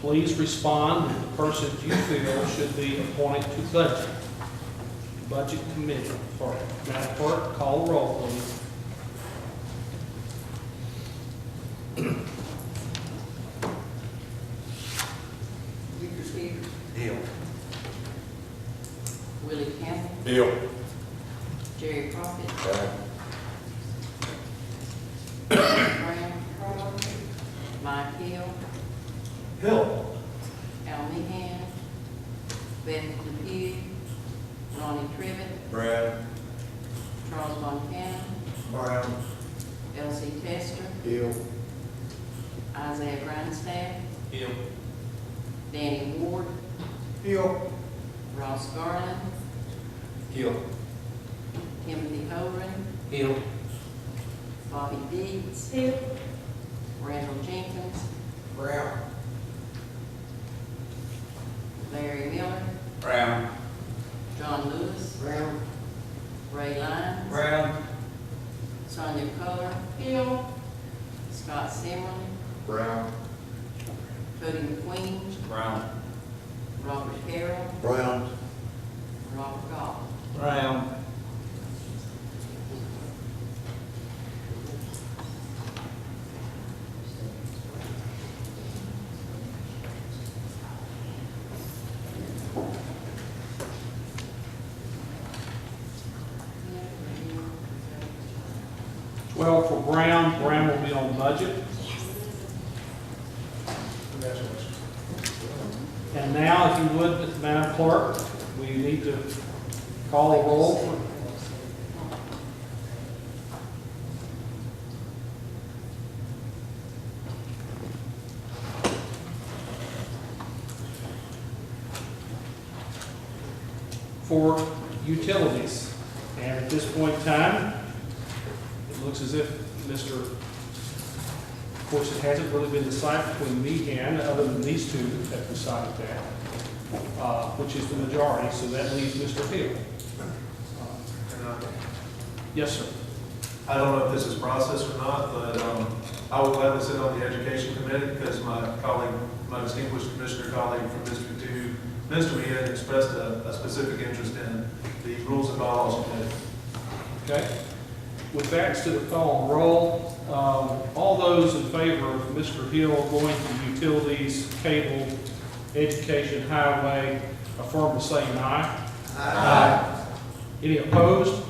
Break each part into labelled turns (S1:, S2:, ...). S1: please respond if the person you feel should be appointed to budget. Budget Committee Clerk. Madam Clerk, call the roll, please.
S2: Victor Stevens,
S3: Deal.
S2: Willie Campbell,
S3: Deal.
S2: Jerry Prophet, Brown, Mike Hill,
S3: Hill.
S2: Al Meehan, Beth Lepew, Ronnie Trivet,
S3: Brad.
S2: Charles Von Cannon,
S3: Brown.
S2: Elsie Tester,
S3: Hill.
S2: Isaiah Grindstaff,
S1: Hill.
S2: Danny Ward,
S3: Hill.
S2: Ross Garland,
S3: Hill.
S2: Timothy Horan,
S3: Hill.
S2: Bobby Dees,
S4: Hill,
S2: Randall Jenkins,
S3: Brown.
S2: Larry Miller,
S3: Brown.
S2: John Lewis,
S3: Brown.
S2: Ray Lyons,
S3: Brown.
S2: Sonia Coler,
S4: Hill,
S2: Scott Semlin,
S3: Brown.
S2: Cody McQueen,
S3: Brown.
S2: Robert Carroll,
S3: Brown.
S2: and Robert Goff.
S3: Brown.
S1: Twelve for Brown, Brown will be on budget.
S3: Congratulations.
S1: And now, if you would, Madam Clerk, we need to call the roll. for utilities. And at this point in time, it looks as if Mr., of course, it hasn't really been decided between me and, other than these two that have decided that, uh, which is the majority, so that leaves Mr. Hill.
S5: And I-
S1: Yes, sir.
S5: I don't know if this is processed or not, but um, I will gladly sit on the education committee because my colleague, my distinguished commissioner colleague from District Two, Mr. Meehan, expressed a a specific interest in the rules and bylaws committee.
S1: Okay. With that, to the call and roll, um, all those in favor of Mr. Hill going to utilities, cable, education, highway, affirm by saying aye. Aye. Any opposed?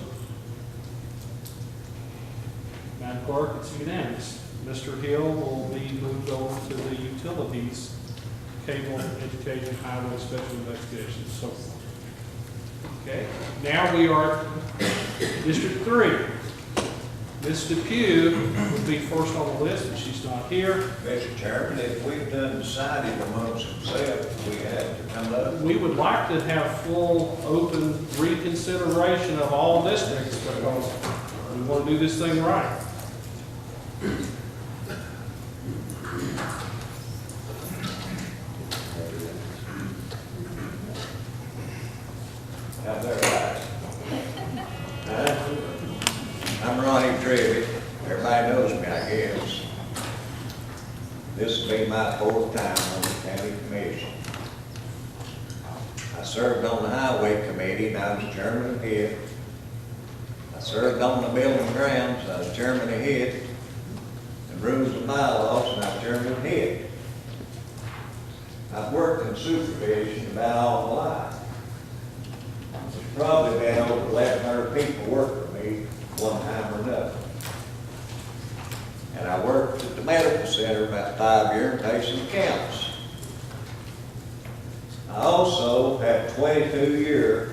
S1: Madam Clerk, it's unanimous. Mr. Hill will be moved over to the utilities, cable, education, highway, special investigations, so forth. Okay, now we are at District three, Ms. Depew would be first on the list, but she's not here.
S6: Mr. Chairman, if we've done decided amongst ourselves, we have to come up.
S1: We would like to have full, open reconsideration of all districts, because we want to do this thing right.
S6: Now, they're right. Huh? I'm Ronnie Trivet. Everybody knows me, I guess. This will be my fourth time on the county commission. I served on the highway committee and I was chairman of it. I served on the building grounds, I was chairman of it. And rules and bylaws, and I was chairman of it. I've worked in supervision about all my life. There's probably been over eleven hundred people work for me one time or another. And I worked at the medical center about five years, patient counts. I also had twenty-two year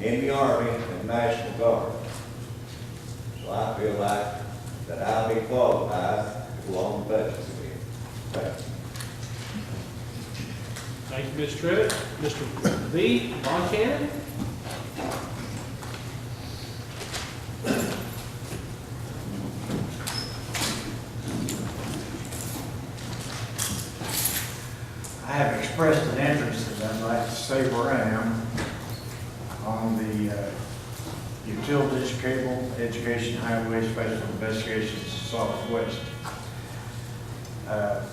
S6: in the Army and National Guard. So I feel like that I'll be qualified to go on the budget committee. Thank you.
S1: Thank you, Ms. Trivet. Mr. B, Von Cannon?
S7: I have expressed an interest, as I'd like to say where I am, on the uh, utilities, cable, education, highway, special investigations, Southwest. Uh,